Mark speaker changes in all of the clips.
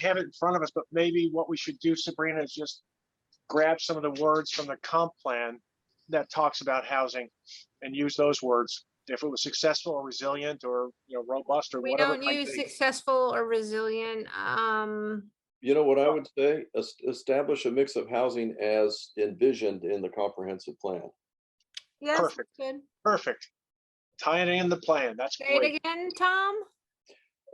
Speaker 1: have it in front of us, but maybe what we should do, Sabrina, is just grab some of the words from the comp plan that talks about housing and use those words. If it was successful or resilient or, you know, robust or
Speaker 2: We
Speaker 1: whatever. it
Speaker 2: don't
Speaker 1: might
Speaker 2: use
Speaker 1: be.
Speaker 2: successful or resilient, um,
Speaker 3: You know what I would say? Es- Establish a mix of housing as envisioned in the comprehensive plan.
Speaker 2: yes,
Speaker 1: Perfect.
Speaker 2: that's good.
Speaker 1: Perfect. Tie it in the plan. That's
Speaker 2: Say it
Speaker 1: great.
Speaker 2: again, Tom?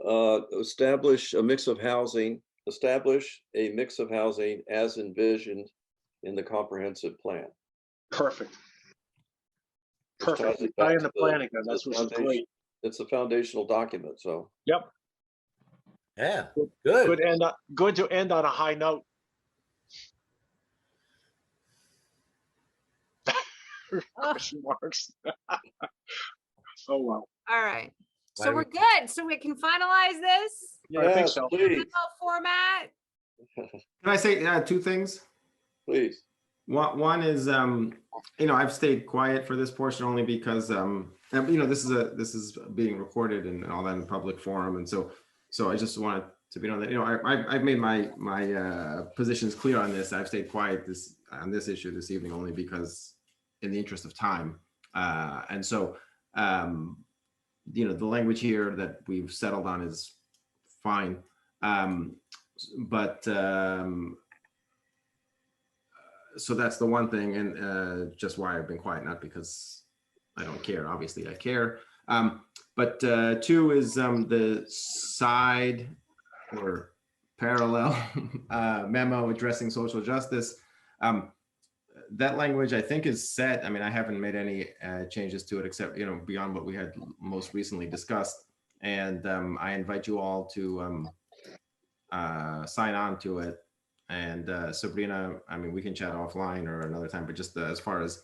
Speaker 3: Uh, establish a mix of housing, establish a mix of housing as envisioned in the comprehensive plan.
Speaker 1: Perfect.
Speaker 3: ties
Speaker 1: Perfect.
Speaker 3: it back
Speaker 1: Tie in
Speaker 3: to
Speaker 1: the
Speaker 3: the-
Speaker 1: plan again. That's
Speaker 3: the
Speaker 1: what's great.
Speaker 3: foundation. It's a foundational document, so.
Speaker 4: Yeah,
Speaker 1: Good-
Speaker 4: good.
Speaker 1: Good end, on- good to end on a high note.
Speaker 2: Ugh,
Speaker 1: Question marks. Oh, wow.
Speaker 2: All right, so
Speaker 4: Why
Speaker 2: we're
Speaker 4: would-
Speaker 2: good, so we can finalize this
Speaker 1: Yeah, I think
Speaker 3: Yes,
Speaker 1: so.
Speaker 3: Please,
Speaker 2: email format.
Speaker 5: Can I say uh, two things?
Speaker 3: please.
Speaker 5: One, one is, um, you know, I've stayed quiet for this portion only because, um, and, you know, this is a, this is being recorded and all that in public forum. And so, so I just wanted to be on that, you know, I, I've, I've made my, my, uh, positions clear on this. I've stayed quiet this, on this issue this evening only because in the interest of time. Uh, and so, um, you know, the language here that we've settled on is fine. Um, s- but, um, so that's the one thing and uh, just why I've been quiet, not because I don't care. Obviously, I care. Um, but uh, two is um, the side or parallel uh, memo addressing social justice. Um, that language, I think, is set. I mean, I haven't made any uh, changes to it except, you know, beyond what we had most recently discussed. And um, I invite you all to um, uh, sign on to it and uh, Sabrina, I mean, we can chat offline or another time, but just uh, as far as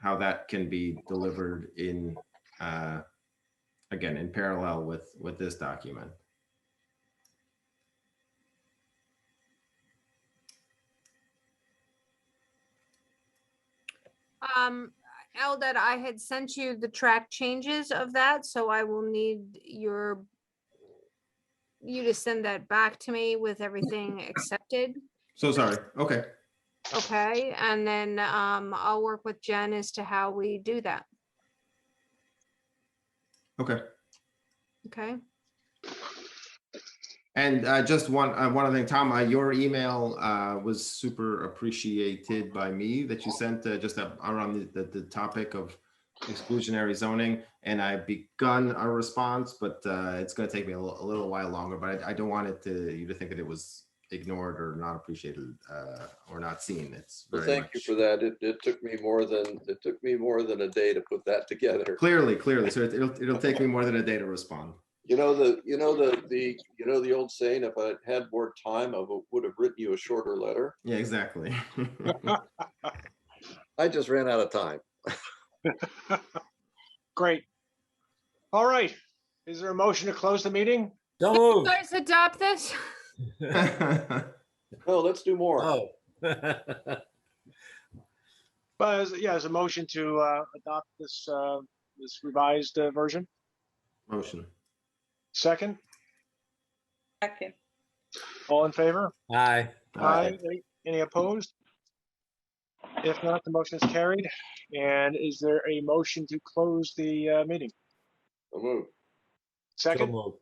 Speaker 5: how that can be delivered in, uh, again, in parallel with, with this document.
Speaker 2: Um, Eldad, I had sent you the track changes of that, so I will need your you to send that back to me with everything accepted.
Speaker 5: So sorry. Okay.
Speaker 2: Okay, and then um, I'll work with Jen as to how we do that.
Speaker 5: Okay.
Speaker 2: Okay,
Speaker 5: And uh, just one, uh, one other thing, Tom, uh, your email uh, was super appreciated by me that you sent uh, just a- around the- the, the topic of exclusionary zoning. And I've begun a response, but uh, it's going to take me a li- a little while longer, but I, I don't want it to, you to think that it was ignored or not appreciated uh, or not seen. It's
Speaker 3: Well,
Speaker 5: very
Speaker 3: Thank you
Speaker 5: much.
Speaker 3: for that. It, it took me more than, it took me more than a day to put that together.
Speaker 5: Clearly, clearly. So it- it'll, it'll take me more than a day to respond.
Speaker 3: You know, the, you know, the, the, you know, the old saying, if I had more time, I would- would have written you a shorter letter.
Speaker 5: Yeah, exactly.
Speaker 3: I just ran out of time.
Speaker 1: Great. All right. Is there a motion to close the meeting?
Speaker 4: Don't move.
Speaker 2: guys adopt this?
Speaker 3: No, let's do more.
Speaker 4: Oh.
Speaker 1: But as- yeah, as a motion to uh, adopt this, uh, this revised uh, version.
Speaker 5: Motion.
Speaker 1: Second,
Speaker 6: Second.
Speaker 1: all in favor?
Speaker 4: Hi.
Speaker 5: Aye.
Speaker 1: Any- Any opposed? If not, the motion is carried. And is there a motion to close the uh, meeting?
Speaker 3: So moved.
Speaker 4: Don't
Speaker 1: Second,
Speaker 4: move.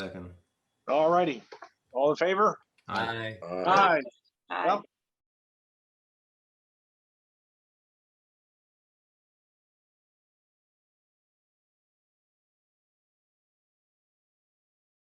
Speaker 5: Second.
Speaker 1: all righty. All in favor?
Speaker 5: Aye.
Speaker 4: Aye.
Speaker 3: All right.
Speaker 1: Aye.
Speaker 6: Aye.
Speaker 1: Well,